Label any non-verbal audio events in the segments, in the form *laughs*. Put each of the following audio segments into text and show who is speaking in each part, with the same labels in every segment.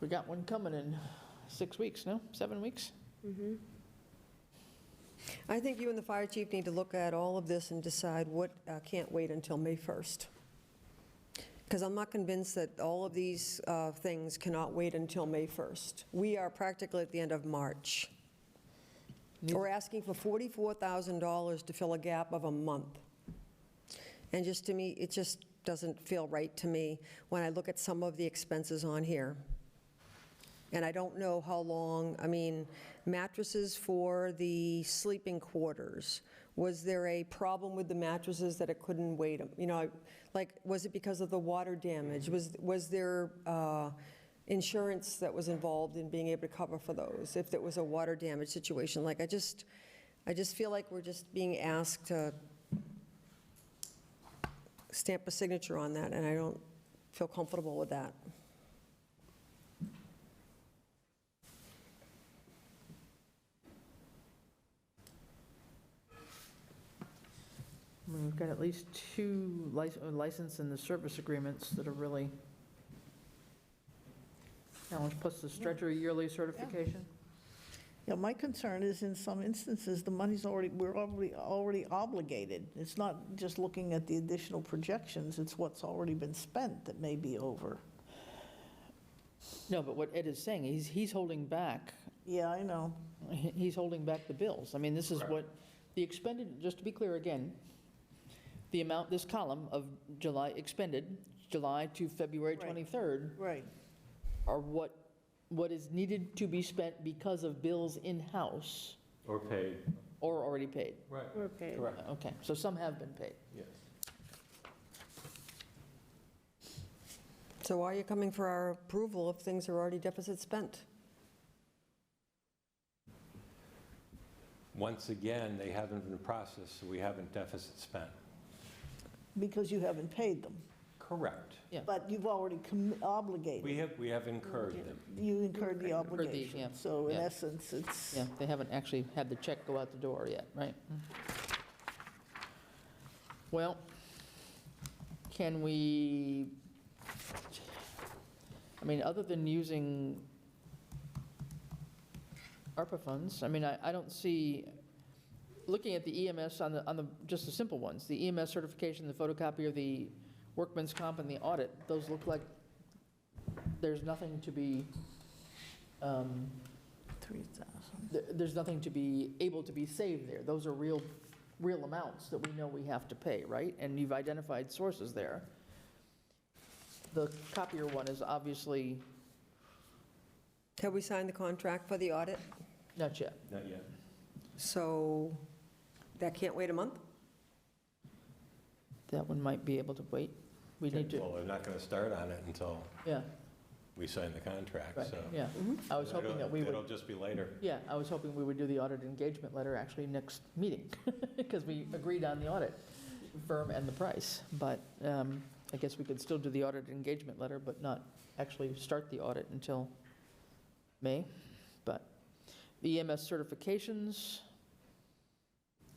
Speaker 1: We got one coming in six weeks, no? Seven weeks?
Speaker 2: Mm-hmm.
Speaker 3: I think you and the fire chief need to look at all of this and decide what uh, can't wait until May 1st. Because I'm not convinced that all of these uh, things cannot wait until May 1st. We are practically at the end of March. We're asking for $44,000 to fill a gap of a month. And just to me, it just doesn't feel right to me when I look at some of the expenses on here. And I don't know how long, I mean, mattresses for the sleeping quarters, was there a problem with the mattresses that it couldn't wait? You know, like, was it because of the water damage? Was, was there uh, insurance that was involved in being able to cover for those, if there was a water damage situation? Like, I just, I just feel like we're just being asked to stamp a signature on that, and I don't feel comfortable with that.
Speaker 1: I mean, We've got at least two lic- uh, license and the service agreements that are really challenged, plus the stretcher yearly certification.
Speaker 4: Yeah, my concern is in some instances, the money's already, we're already, already obligated. It's not just looking at the additional projections, it's what's already been spent that may be over.
Speaker 1: No, but what Ed is saying, he's, he's holding back,
Speaker 4: Yeah, I know.
Speaker 1: he- he's holding back the bills. I mean, this is what, the expended, just to be clear again, the amount, this column of July expended, July to February
Speaker 4: Right.
Speaker 1: 23rd,
Speaker 4: Right.
Speaker 1: are what, what is needed to be spent because of bills in-house
Speaker 5: Or paid.
Speaker 1: or already paid.
Speaker 5: Right.
Speaker 2: Okay.
Speaker 5: Correct,
Speaker 1: Okay, so some have been paid.
Speaker 5: yes.
Speaker 3: So why are you coming for our approval if things are already deficit spent?
Speaker 5: Once again, they haven't been processed, so we haven't deficit spent.
Speaker 4: Because you haven't paid them,
Speaker 5: Correct.
Speaker 1: Yeah.
Speaker 4: but you've already commi- obligated.
Speaker 5: We have, we have incurred them.
Speaker 4: You incurred the
Speaker 1: the- yeah,
Speaker 4: obligation. So in
Speaker 1: yeah.
Speaker 4: essence, it's,
Speaker 1: Yeah, they haven't actually had the check go out the door yet, right? Well, can we, I mean, other than using ARPA funds, I mean, I, I don't see, looking at the EMS on the, on the, just the simple ones, the EMS certification, the photocopier, the workman's comp and the audit, those look like there's nothing to be, um,
Speaker 4: 3,000.
Speaker 1: th- there's nothing to be, able to be saved there. Those are real, real amounts that we know we have to pay, right? And you've identified sources there. The copier one is obviously
Speaker 3: Have we signed the contract for the audit?
Speaker 1: not yet.
Speaker 5: Not yet.
Speaker 3: So that can't wait a month?
Speaker 1: That one might be able to wait. We need to,
Speaker 5: Well, we're not going to start on it until
Speaker 1: yeah,
Speaker 5: we sign the contract,
Speaker 1: right,
Speaker 5: so.
Speaker 1: yeah. I was
Speaker 5: It'll-
Speaker 1: hoping that we
Speaker 5: It'll
Speaker 1: would,
Speaker 5: just be later.
Speaker 1: yeah, I was hoping we would do the audit engagement letter actually next meeting, *laughs* because we agreed on the audit firm and the price. But um, I guess we could still do the audit engagement letter, but not actually start the audit until May, but the EMS certifications,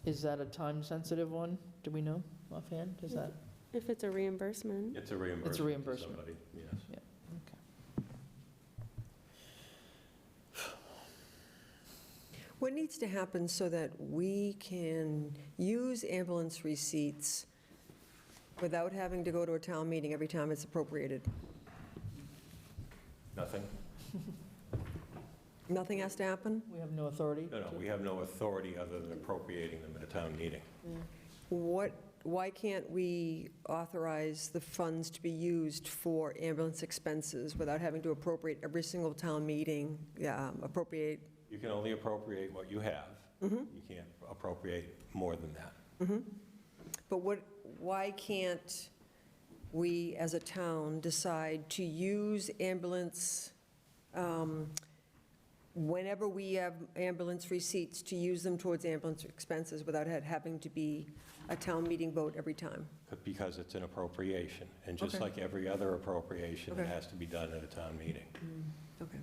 Speaker 1: is that a time-sensitive one? Do we know offhand? Is that,
Speaker 2: If it's a reimbursement,
Speaker 5: It's a reimbursement. to
Speaker 1: reimbursement.
Speaker 5: somebody, Yes.
Speaker 3: What needs to happen so that we can use ambulance receipts without having to go to a town meeting every time it's appropriated?
Speaker 5: Nothing?
Speaker 3: Nothing has to happen?
Speaker 1: we have no authority?
Speaker 5: No, no,
Speaker 1: to-
Speaker 5: we have no authority other than appropriating them at a town meeting.
Speaker 3: What, why can't we authorize the funds to be used for ambulance expenses without having to appropriate every single town meeting, um, appropriate?
Speaker 5: You can only appropriate what you have.
Speaker 1: Mm-hmm.
Speaker 5: You can't appropriate more than that.
Speaker 3: Mm-hmm. But what, why can't we, as a town, decide to use ambulance, um, whenever we have ambulance receipts, to use them towards ambulance expenses without it having to be a town meeting vote every time?
Speaker 5: Because it's an appropriation, and just
Speaker 3: Okay.
Speaker 5: like every other appropriation, it
Speaker 3: Okay.
Speaker 5: has to be done at a town meeting.
Speaker 3: Okay.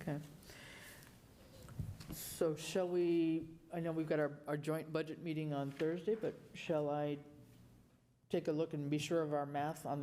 Speaker 1: Okay. So shall we, I know we've got our, our joint budget meeting on Thursday, but shall I take a look and be sure of our math on the